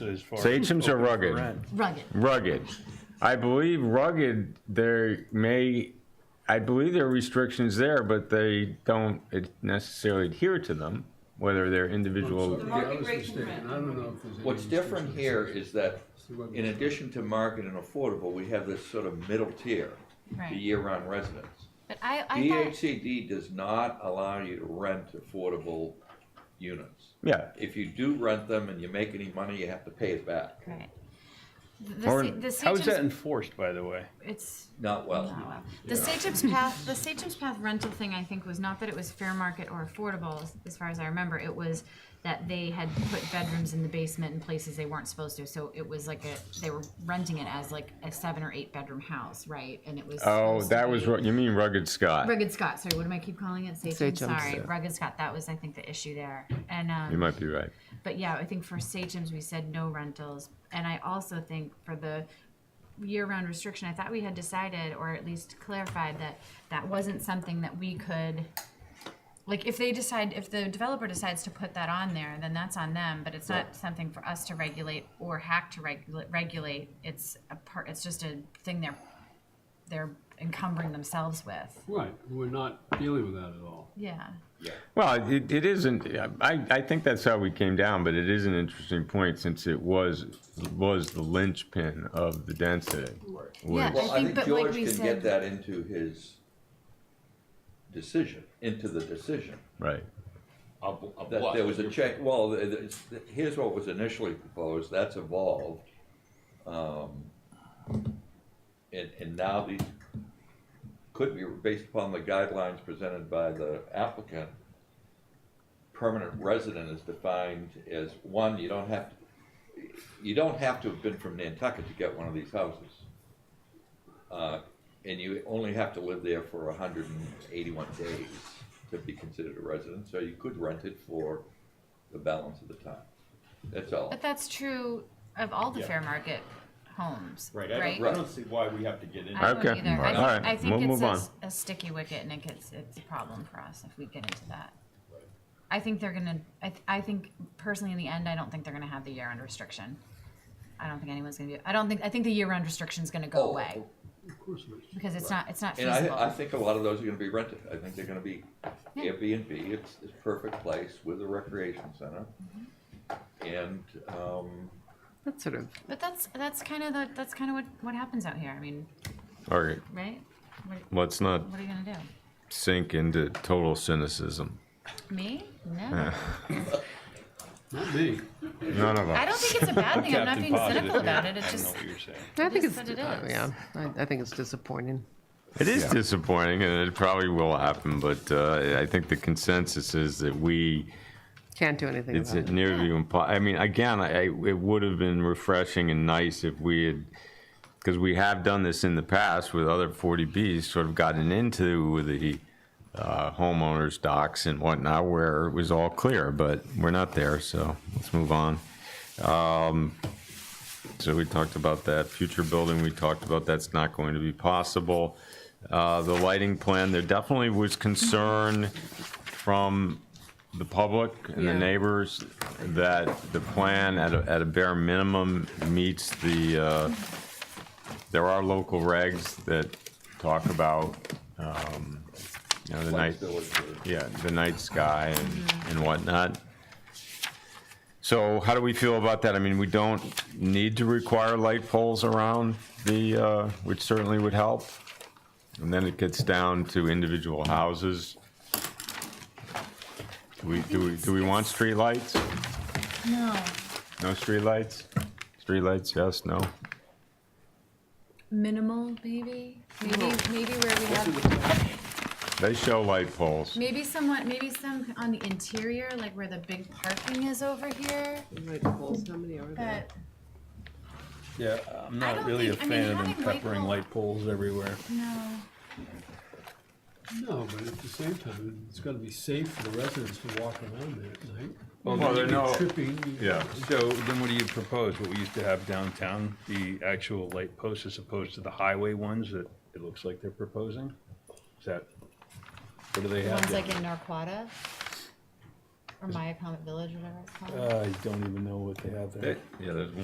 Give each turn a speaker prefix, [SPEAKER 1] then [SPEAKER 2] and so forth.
[SPEAKER 1] as far. as
[SPEAKER 2] Sachems
[SPEAKER 1] open
[SPEAKER 2] are
[SPEAKER 1] for
[SPEAKER 2] rugged.
[SPEAKER 1] rent.
[SPEAKER 3] rugged.
[SPEAKER 2] rugged. I believe rugged. There may, I believe there are restrictions there, but they don't necessarily adhere to them, whether they're individual.
[SPEAKER 4] Yeah, I was mistaken. I don't know if there's any.
[SPEAKER 5] What's different
[SPEAKER 4] restrictions.
[SPEAKER 5] here is that,
[SPEAKER 4] See what-
[SPEAKER 5] in addition to market and affordable, we have this sort of middle tier,
[SPEAKER 3] Right.
[SPEAKER 5] the year-round residents.
[SPEAKER 3] But I, I thought,
[SPEAKER 5] DHCD does not allow you to rent affordable units.
[SPEAKER 2] Yeah,
[SPEAKER 5] If you do rent them and you make any money, you have to pay it back.
[SPEAKER 3] right. The,
[SPEAKER 2] Or-
[SPEAKER 3] the, the
[SPEAKER 1] How is that
[SPEAKER 3] Sachem's-
[SPEAKER 1] enforced, by the way?
[SPEAKER 3] it's
[SPEAKER 5] Not well.
[SPEAKER 3] Oh, wow. The Sachem's Path, the Sachem's Path rental thing, I think, was not that it was fair market or affordable, as- as far as I remember. It was that they had put bedrooms in the basement in places they weren't supposed to, so it was like a, they were renting it as like a seven or eight bedroom house, right? And it was.
[SPEAKER 2] oh,
[SPEAKER 3] supposed to
[SPEAKER 2] that was,
[SPEAKER 3] be-
[SPEAKER 2] ru- you mean rugged Scott?
[SPEAKER 3] Rugged Scott, sorry, what am I keep calling it? Sachem,
[SPEAKER 6] Sachem,
[SPEAKER 3] sorry,
[SPEAKER 6] yeah.
[SPEAKER 3] Rugged Scott, that was, I think, the issue there. And,
[SPEAKER 2] You
[SPEAKER 3] um,
[SPEAKER 2] might be right.
[SPEAKER 3] but yeah, I think for Sachems, we said no rentals. And I also think for the year-round restriction, I thought we had decided, or at least clarified, that that wasn't something that we could, like, if they decide, if the developer decides to put that on there, then that's on them, but it's not something for us to regulate or hack to regulate, regulate. It's a part, it's just a thing they're, they're encumbering themselves with.
[SPEAKER 4] Right, we're not dealing with that at all.
[SPEAKER 3] Yeah.
[SPEAKER 2] Well, it, it isn't, I, I think that's how we came down, but it is an interesting point since it was, was the linchpin of the density.
[SPEAKER 3] Yeah,
[SPEAKER 2] which-
[SPEAKER 5] Well,
[SPEAKER 3] I
[SPEAKER 5] I
[SPEAKER 3] think,
[SPEAKER 5] think
[SPEAKER 3] but like
[SPEAKER 5] George
[SPEAKER 3] we
[SPEAKER 5] can
[SPEAKER 3] said-
[SPEAKER 5] get that into his decision, into the decision.
[SPEAKER 2] Right.
[SPEAKER 7] Of, of
[SPEAKER 5] That
[SPEAKER 7] what?
[SPEAKER 5] there was a check, well, th- th- it's- th- here's what was initially proposed, that's evolved. Um, And, and now these could be, based upon the guidelines presented by the applicant, permanent resident is defined as, one, you don't have, you don't have to have been from Nantucket to get one of these houses. Uh, And you only have to live there for hundred and eighty-one days to be considered a resident, so you could rent it for the balance of the time. That's all.
[SPEAKER 3] But that's true of all the
[SPEAKER 7] Yeah.
[SPEAKER 3] fair market homes, right?
[SPEAKER 7] Right, I don't, I don't see why we have to get into
[SPEAKER 3] I don't
[SPEAKER 2] Okay.
[SPEAKER 3] either. I
[SPEAKER 2] All
[SPEAKER 3] think-
[SPEAKER 2] right,
[SPEAKER 3] I think
[SPEAKER 2] we'll
[SPEAKER 3] it's
[SPEAKER 2] move
[SPEAKER 3] a
[SPEAKER 2] on.
[SPEAKER 3] s- a sticky wicket and it gets, it's a problem for us if we get into that. I think they're gonna, I, th- I think personally in the end, I don't think they're gonna have the year-round restriction. I don't think anyone's gonna be, I don't think, I think the year-round restriction's gonna go
[SPEAKER 5] Oh,
[SPEAKER 3] away
[SPEAKER 4] Of course it is.
[SPEAKER 3] because it's not, it's not
[SPEAKER 5] And I, I
[SPEAKER 3] feasible.
[SPEAKER 5] think a lot of those are gonna be rented, I think they're gonna be Airbnb, it's, it's a perfect place with a recreation center. And, um,
[SPEAKER 6] That's sort of
[SPEAKER 3] But that's, that's kind of the, that's kind of what, what happens out here. I mean,
[SPEAKER 2] All right,
[SPEAKER 3] right? What,
[SPEAKER 2] let's not
[SPEAKER 3] what are you gonna do?
[SPEAKER 2] sink into total cynicism.
[SPEAKER 3] Me? No.
[SPEAKER 4] Not me.
[SPEAKER 2] None of us.
[SPEAKER 3] I don't think it's a bad thing. I'm not
[SPEAKER 1] Captain
[SPEAKER 3] being cynical
[SPEAKER 1] Positive, yeah,
[SPEAKER 3] about it. It's
[SPEAKER 1] I know
[SPEAKER 3] just,
[SPEAKER 1] what you're saying.
[SPEAKER 6] I
[SPEAKER 3] is
[SPEAKER 6] think it's,
[SPEAKER 3] what it
[SPEAKER 6] uh,
[SPEAKER 3] is.
[SPEAKER 6] yeah, I, I think it's disappointing.
[SPEAKER 2] It is disappointing, and it probably will happen. But uh, I think the consensus is that we
[SPEAKER 6] Can't do anything
[SPEAKER 2] it's
[SPEAKER 6] about it.
[SPEAKER 2] nearly impossible. I mean, again, I, I- it would have been refreshing and nice if we had, because we have done this in the past with other 40Bs, sort of gotten into the uh, homeowners docs and whatnot, where it was all clear. But we're not there, so let's move on. Um, So we talked about that future building, we talked about that's not going to be possible. Uh, The lighting plan, there definitely was concern from the public and the
[SPEAKER 6] Yeah.
[SPEAKER 2] neighbors that the plan at a, at a bare minimum meets the, uh, there are local regs that talk about, um, you know, the night,
[SPEAKER 5] flexibility.
[SPEAKER 2] yeah, the night sky and, and whatnot. So how do we feel about that? I mean, we don't need to require light poles around the, uh, which certainly would help. And then it gets down to individual houses. Do we, do we, do we want streetlights?
[SPEAKER 3] no.
[SPEAKER 2] No streetlights? Streetlights, yes, no?
[SPEAKER 3] minimal maybe maybe maybe where we have
[SPEAKER 2] They show light poles.
[SPEAKER 3] maybe somewhat maybe some on the interior like where the big parking is over here
[SPEAKER 6] Light poles, how many are there?
[SPEAKER 3] but
[SPEAKER 1] Yeah, I'm
[SPEAKER 3] I
[SPEAKER 1] not
[SPEAKER 3] don't
[SPEAKER 1] really a
[SPEAKER 3] think- I mean,
[SPEAKER 1] fan of them
[SPEAKER 3] having light
[SPEAKER 1] peppering
[SPEAKER 3] pole-
[SPEAKER 1] light poles everywhere.
[SPEAKER 3] no
[SPEAKER 4] No, but at the same time, it's gotta be safe for the residents to walk around there at night.
[SPEAKER 1] Well,
[SPEAKER 4] You
[SPEAKER 2] there
[SPEAKER 4] could be
[SPEAKER 2] are no-
[SPEAKER 4] Tripping. you-
[SPEAKER 2] Yeah.
[SPEAKER 1] So then what do you propose? What we used to have downtown, the actual light posts as opposed to the highway ones that it looks like they're proposing? Is that, what do they have?
[SPEAKER 3] one's
[SPEAKER 1] down-
[SPEAKER 3] like in narquata
[SPEAKER 8] or my Village, whatever it's called.
[SPEAKER 1] Uh,
[SPEAKER 3] I don't even know what they have there.
[SPEAKER 1] Yeah, there's